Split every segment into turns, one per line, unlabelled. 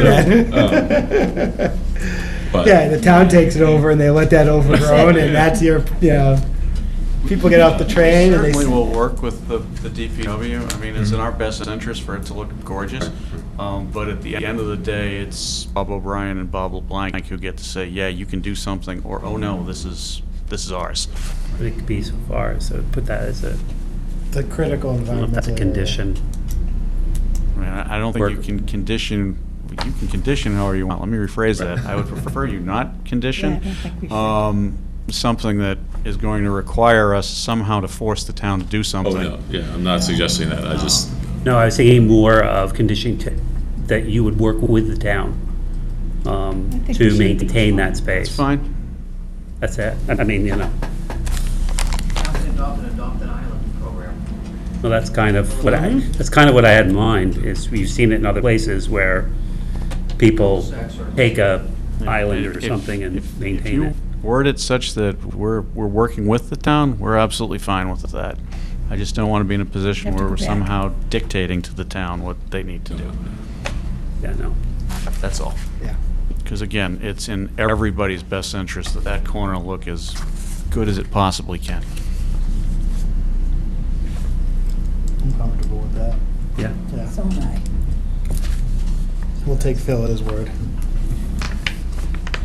that.
but-
Yeah, the town takes it over and they let that overgrown and that's your, you know, people get off the train and they.
Certainly will work with the, the DPW. I mean, it's in our best interest for it to look gorgeous. Um, but at the end of the day, it's Bob O'Brien and Bob LeBlanc who get to say, yeah, you can do something, or, oh no, this is, this is ours.
But it could be so far, so put that as a,
The critical
I don't know if
environmental.
that's a condition.
I mean, I I don't think you
Work.
can condition, you can condition however you want. Let me rephrase that. I would prefer you not
Yeah,
condition.
I don't think we should.
um, Something that is going to require us somehow to force the town to do
Oh,
something.
no, yeah, I'm not suggesting that, I just,
No, I was thinking more of conditioning to, that you would work with the town um,
I think we
to
should be
maintain that space.
It's fine.
That's it. I I mean, you know,
Town can adopt an Adopt an Island program.
well, that's kind of what I,
Mm-hmm.
that's kind of what I had in mind, is we've seen it in other places where people take a island or
If-
something and
if- if
maintain
you
it.
Word it such that we're, we're working with the town, we're absolutely fine with that. I just don't want to be in a position
Have to
where
go
we're
back.
somehow dictating to the town what they need to do.
Yeah, no.
That's all.
Yeah.
Because again, it's in everybody's best interest that that corner look as good as it possibly can.
I'm comfortable with that,
Yeah.
yeah.
So am I.
We'll take Phil at his word.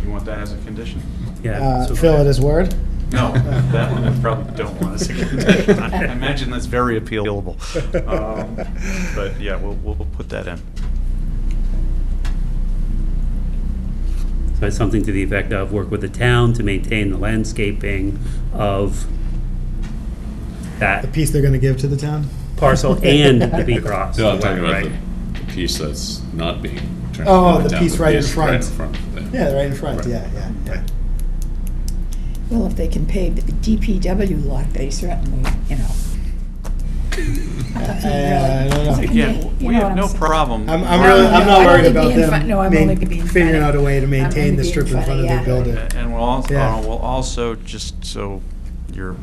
You want that as a condition?
Yeah.
Uh,
so-
Phil at his word?
No, that one I probably don't want as a condition. I imagine that's very appealable. Um, But yeah, we'll, we'll we'll put that in.
So it's something to the effect of work with the town to maintain the landscaping of
The
that
piece they're gonna give to the town?
parcel and the Bee Cross.
no, I'm talking about
right?
the the piece that's not being. turned
Oh,
down,
the piece right in
Right in
front.
front.
Yeah, right in front,
Right.
yeah, yeah, yeah.
Well, if they can pave the DPW lot, they certainly, you know.
Uh, I don't know.
Again,
You
we
know
have
what
no
I'm saying.
problem.
I'm, I'm really, I'm
No,
not
no,
worried
I'm only
about
being fun-
them
no, I'm
main-
only being
figuring
funny.
out a way to
I'm
maintain
only
the
being
strip in
funny,
front of their
yeah.
building.
And we'll uh, also,
Yeah.
we'll also, just so you're